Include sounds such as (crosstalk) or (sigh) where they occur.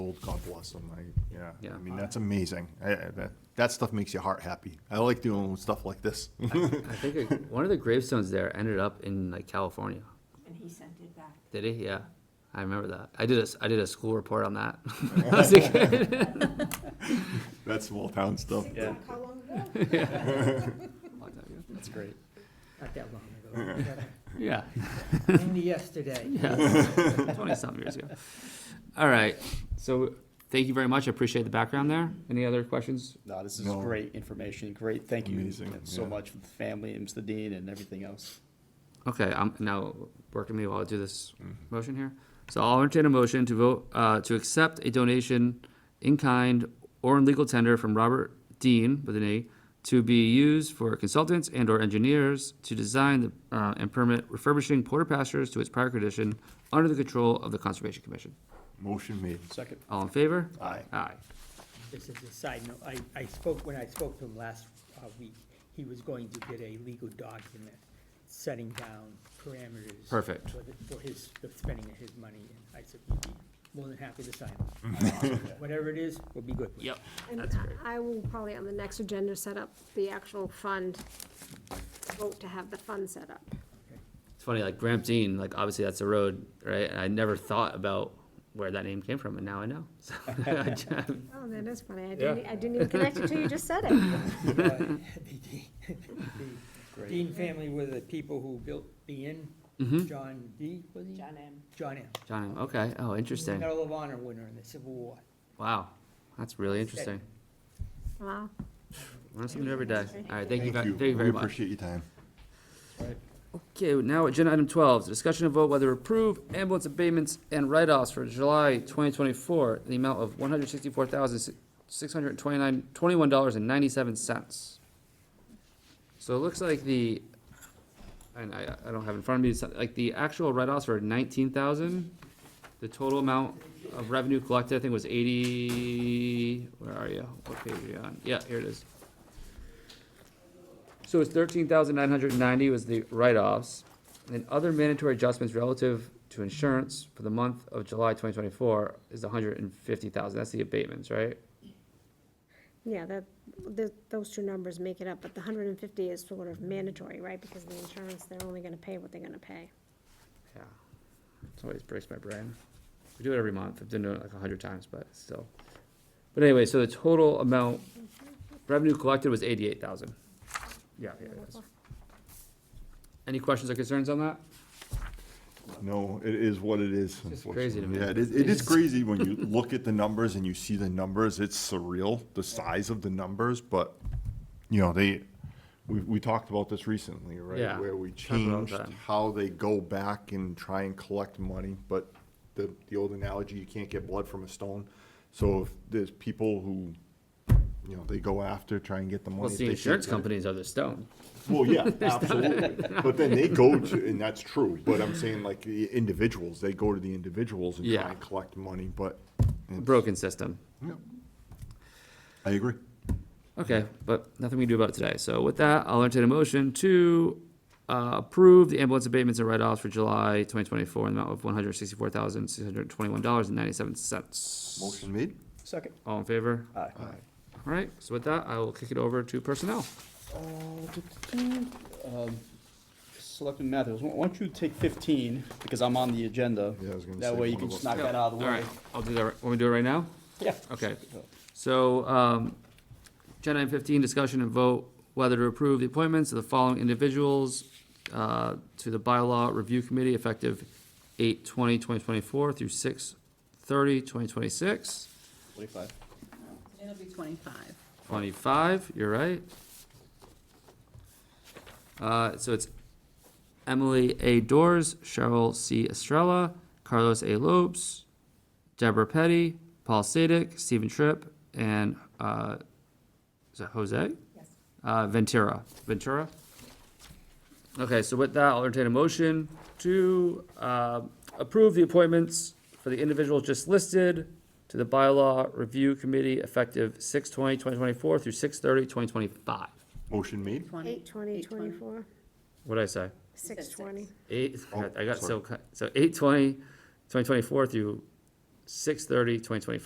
old, God bless them. I, yeah, Yeah. I mean, that's amazing. I, I, that, that stuff makes your heart happy. I like doing stuff like this. (laughs) I think it- one of the gravestones there ended up in like California. And he sent it back. Did he? Yeah, I remember that. I did a s- I did a school report on that. (laughs) When I was a kid. That's small town stuff. Think Yeah. about How long ago? That's great. Not that long ago, Yeah, but in the yesterday. (laughs) yeah, twenty something years ago. All right, so thank you very much. I appreciate the background there. Any other questions? No, this is No. great information. Great, thank you Amazing, so yeah. much for the family and Mr. Dean and everything else. Okay, I'm now working me while I do this motion here. So I'll entertain a motion to vote, uh, to accept a donation in kind or in legal tender from Robert Dean with an A to be used for consultants and or engineers to design the, uh, and permit refurbishing Porter Pastures to its prior condition under the control of the Conservation Commission. Motion made. Second, All in favor? Aye. Aye. This is a side note, I, I spoke, when I spoke to him last uh, week, he was going to get a legal document setting down parameters. Perfect. For, the- for his, the spending of his money, and I said, he'd be more than happy to sign it. Whatever it is, we'll be good with it. Yep. And That's great. I will probably on the next agenda set up the actual fund, vote to have the fund set up. It's funny, like Gramp Dean, like obviously that's a road, right? And I never thought about where that name came from and now I know. (laughs) So I (laughs) just- Oh, that is funny, I didn't, I didn't even connect it to you just said (laughs) it. Uh, the Dean- the Dean family were the people who built the inn, John D, was he? John M. John M. John, okay, oh, interesting. Medal of Honor winner in the Civil War. Wow, that's really interesting. Wow. Learn something new every day. All right, thank you, ve- Thank you. thank you very We much. appreciate your time. Okay, now agenda item twelve, discussion and vote whether approve ambulance abatements and write-offs for July twenty twenty-four, the amount of one hundred sixty-four thousand, six hundred twenty-nine, twenty-one dollars and ninety-seven cents. So it looks like the, and I, I don't have in front of me, so- like the actual write-offs were nineteen thousand. The total amount of revenue collected, I think, was eighty, where are you? What page are you on? Yeah, here it is. So it's thirteen thousand nine hundred ninety was the write-offs, and other mandatory adjustments relative to insurance for the month of July twenty twenty-four is hundred and fifty thousand, that's the abatements, right? Yeah, that, th those two numbers make it up, but the hundred and fifty is sort of mandatory, right? Because the insurance, they're only gonna pay what they're gonna pay. Yeah. It always breaks my brain. We do it every month, I've done it like a hundred times, but still. But anyway, so the total amount, revenue collected was eighty-eight thousand. Yeah, yeah, it is. Any questions or concerns on that? No, it is what it is. It's just crazy to me. unfortunately. Yeah, it is, it is crazy when you look at the numbers and you see the numbers, it's surreal, the size of the numbers, but, you know, they, we, we talked about this recently, right? Yeah, Where we talked about changed that. how they go back and try and collect money, but the, the old analogy, you can't get blood from a stone. So if there's people who, you know, they go after, try and get the money. Well, it's if the they can't insurance get it- companies are the stone. well, yeah, absolutely. But then they go to, and that's true, but I'm saying like the individuals, they go to the individuals and Yeah. try and collect money, but. it's- broken system. Yeah. I agree. Okay, but nothing we can do about it today. So with that, I'll entertain a motion to uh, approve the ambulance abatements and write-offs for July twenty twenty-four in the amount of one hundred sixty-four thousand, six hundred twenty-one dollars and ninety-seven cents. Motion made? second. All in favor? Aye. All right, so with that, I will kick it over to personnel. Um, Selectman Matthews, why don't you take fifteen, because I'm on the agenda. Yeah, I was gonna That say way you one can of just us. knock that out of the All way. right, I'll do that, right- want me to do it right now? Yeah. Okay. So, um, agenda item fifteen, discussion and vote whether to approve the appointments of the following individuals, uh, to the bylaw review committee effective 8-20-2024 through 6-30-2026. Forty-five. It'll be twenty-five. Twenty-five, you're right. Uh, so it's Emily A. Doors, Cheryl C. Estrella, Carlos A. Lopes, Deborah Petty, Paul Sadek, Stephen Tripp, and, uh, is that Jose? Yes. Uh, Ventura, Ventura? Okay, so with that, I'll entertain a motion to, uh, approve the appointments for the individuals just listed to the bylaw review committee effective 6-20-2024 through 6-30-2025. Motion made? Eight twenty, twenty-four, What'd I say? said six twenty. Eight, Oh, I got so, cut- so 8-20-2024 through 6-30-2025.